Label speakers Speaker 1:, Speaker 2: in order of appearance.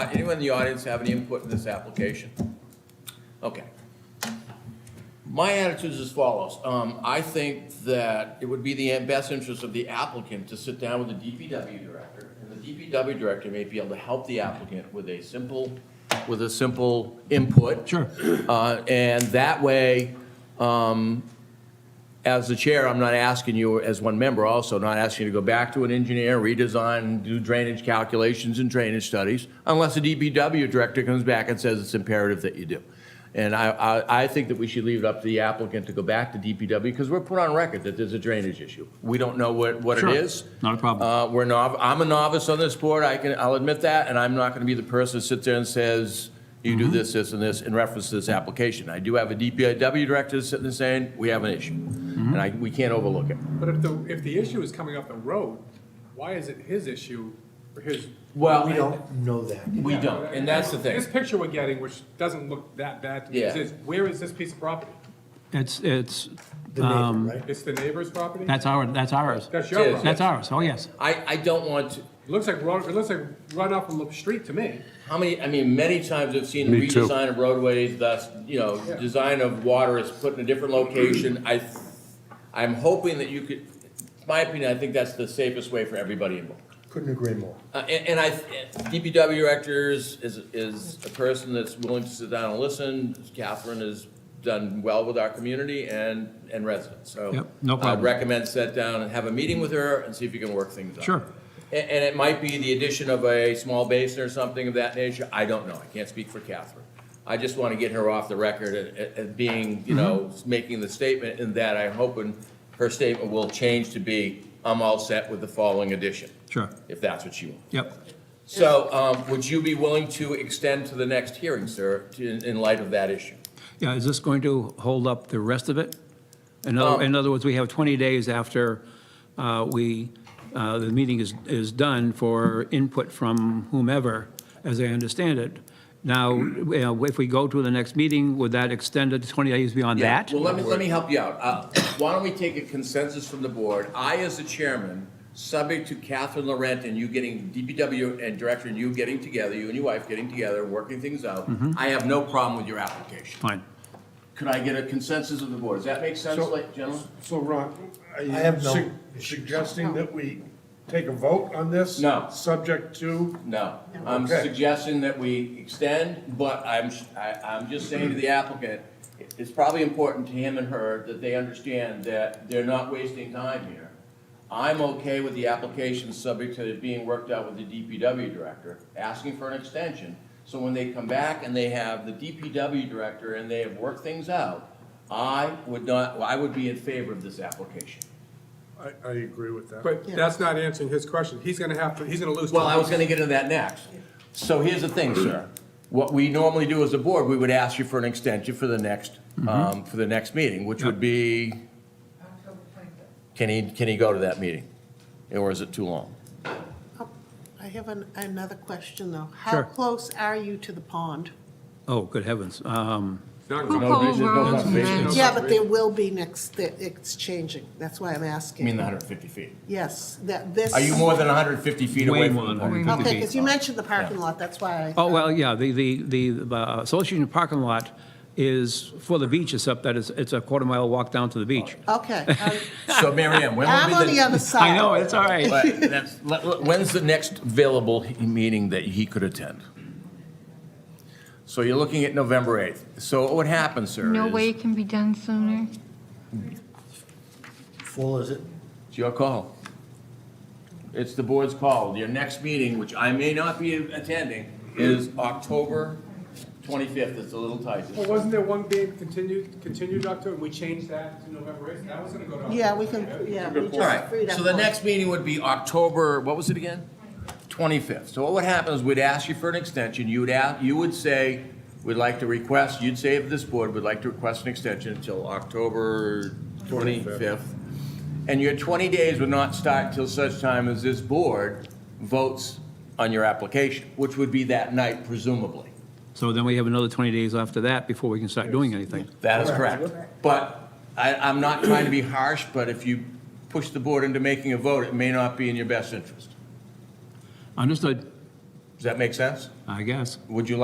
Speaker 1: Uh, Anyone in the audience have any input in this application? Okay. My attitude is as follows. Um, I think that it would be the best interest of the applicant to sit down with the DPW director. And the DPW director may be able to help the applicant with a simple, with a simple input. Sure. Uh, and that way, um, as the chair, I'm not asking you, as one member also, not asking you to go back to an engineer, redesign, do drainage calculations and drainage studies, unless the DPW director comes back and says it's imperative that you do. And I, I, I think that we should leave it up to the applicant to go back to DPW, because we're put on record that there's a drainage issue. We don't know what, what it
Speaker 2: Sure.
Speaker 1: is.
Speaker 2: Not a problem.
Speaker 1: Uh, we're nov, I'm a novice on this board, I can, I'll admit that, and I'm not gonna be the person that sits there and says, you do this, this, and this, in reference to this application. I do have a DPW director sitting there saying, we have an issue, and I, we can't overlook it.
Speaker 3: But if the, if the issue is coming up the road, why is it his issue or his?
Speaker 1: Well,
Speaker 4: We don't know that.
Speaker 1: We don't, and that's the thing.
Speaker 3: This picture we're getting, which doesn't look that bad to me,
Speaker 1: Yeah.
Speaker 3: is this- where is this piece of property?
Speaker 2: It's, it's,
Speaker 4: The neighbor, right?
Speaker 5: Um,
Speaker 3: It's the neighbor's property?
Speaker 2: that's our, that's ours.
Speaker 3: That's
Speaker 1: It
Speaker 3: your
Speaker 1: is.
Speaker 3: property.
Speaker 2: That's ours, oh, yes.
Speaker 1: I, I don't want to,
Speaker 3: It Looks like, run- it looks like run up from the street to me.
Speaker 1: how many, I mean, many times I've seen
Speaker 6: Me too.
Speaker 1: redesign of roadways, thus, you know, design of water is put in a different location. I, I'm hoping that you could, in my opinion, I think that's the safest way for everybody involved.
Speaker 4: Couldn't agree more.
Speaker 1: Uh, And and I, DPW directors is, is a person that's willing to sit down and listen. Catherine has done well with our community and, and residents, so.
Speaker 2: Yep, no
Speaker 1: I'd
Speaker 2: problem.
Speaker 1: recommend sit down and have a meeting with her and see if you can work things out.
Speaker 2: Sure.
Speaker 1: A- And, it might be the addition of a small basin or something of that nature. I don't know. I can't speak for Catherine. I just want to get her off the record at- at, at being, you know, making the statement and that I'm hoping her statement will change to be, I'm all set with the following addition
Speaker 2: Sure,
Speaker 1: if that's what you want.
Speaker 2: yep.
Speaker 1: So, um, would you be willing to extend to the next hearing, sir, to- in, in light of that issue?
Speaker 2: Yeah, is this going to hold up the rest of it? In other, in other words, we have 20 days after uh, we, uh, the meeting is, is done for input from whomever, as I understand it. Now, you know, if we go to the next meeting, would that extend it to 20 days beyond that?
Speaker 1: Well, let me, let me help you out. Uh, why don't we take a consensus from the board? I, as the chairman, subject to Catherine Laurent and you getting, DPW and director and you getting together, you and your wife getting together, working things out, I have no problem with your application.
Speaker 2: Fine.
Speaker 1: Could I get a consensus of the board? Does that make sense,
Speaker 5: So-
Speaker 1: like, gentlemen?
Speaker 5: So Ron, are
Speaker 4: I have
Speaker 5: you
Speaker 4: no-
Speaker 5: su- suggesting that we take a vote on this?
Speaker 1: No.
Speaker 5: Subject to,
Speaker 1: No, I'm
Speaker 5: Okay.
Speaker 1: suggesting that we extend, but I'm, I, I'm just saying to the applicant, it's probably important to him and her that they understand that they're not wasting time here. I'm okay with the application subject to it being worked out with the DPW director, asking for an extension. So when they come back and they have the DPW director and they have worked things out, I would not, I would be in favor of this application.
Speaker 5: I, I agree with that.
Speaker 3: But that's not answering his question. He's gonna have to, he's gonna lose.
Speaker 1: Well, I
Speaker 3: time.
Speaker 1: was gonna get into that next. So here's the thing, sir. What we normally do as a board, we would ask you for an extension for the next, um, for the next meeting, which would be, can he, can he go to that meeting? Or is it too long?
Speaker 7: I have an- another question, though. How
Speaker 2: Sure.
Speaker 7: close are you to the pond?
Speaker 2: Oh, good heavens. Um,
Speaker 3: Not
Speaker 8: Who
Speaker 3: gonna-
Speaker 8: called
Speaker 1: vision, no
Speaker 8: Rollins
Speaker 1: conservation.
Speaker 8: Mansion?
Speaker 7: Yeah, but there will be next, that it's changing. That's why I'm
Speaker 1: I mean,
Speaker 7: asking.
Speaker 1: the hundred and fifty feet.
Speaker 7: Yes, that this.
Speaker 1: Are you more than hundred and fifty feet
Speaker 2: Way
Speaker 1: away
Speaker 2: more
Speaker 1: from
Speaker 2: than
Speaker 1: the pond?
Speaker 2: 150.
Speaker 7: Okay,
Speaker 2: feet.
Speaker 7: because you mentioned the parking lot, that's why I,
Speaker 2: Oh, well, yeah, the, the, the uh, Association parking lot is for the beach, except that it's, it's a quarter mile walk down to the beach.
Speaker 7: okay. I'm-
Speaker 1: So Mary Ann, when
Speaker 7: I'm
Speaker 1: would
Speaker 7: on
Speaker 1: be
Speaker 7: the other
Speaker 1: the?
Speaker 7: side.
Speaker 2: Oh. I know, it's all right.
Speaker 1: But that's- let- let- When's the next available he- meeting that he could attend? So you're looking at November eighth. So what happens, sir,
Speaker 8: No
Speaker 1: is-
Speaker 8: way it can be done sooner?
Speaker 4: Full is it?
Speaker 1: It's your call. It's the board's call. Your next meeting, which I may not be attending, is October 25th. It's a little tight.
Speaker 3: Well, wasn't there one being continued, continued, Doctor, and we changed that to November eighth? That was gonna go to.
Speaker 7: Yeah, we can, yeah, we
Speaker 1: All
Speaker 7: just freed
Speaker 1: right,
Speaker 7: up.
Speaker 1: so the
Speaker 7: one.
Speaker 1: next meeting would be October, what was it again? 25th. So what would happen is we'd ask you for an extension. You would, a- you would say, we'd like to request, you'd say if this board would like to request an extension until October 25th. And your 20 days would not start till such time as this board votes on your application, which would be that night presumably.
Speaker 2: So then we have another 20 days after that before we can start doing anything.
Speaker 1: That is correct. But I, I'm not trying to be harsh, but if you push the board into making a vote, it may not be in your best interest.
Speaker 2: Understood.
Speaker 1: Does that make sense?
Speaker 2: I guess.
Speaker 1: Would you like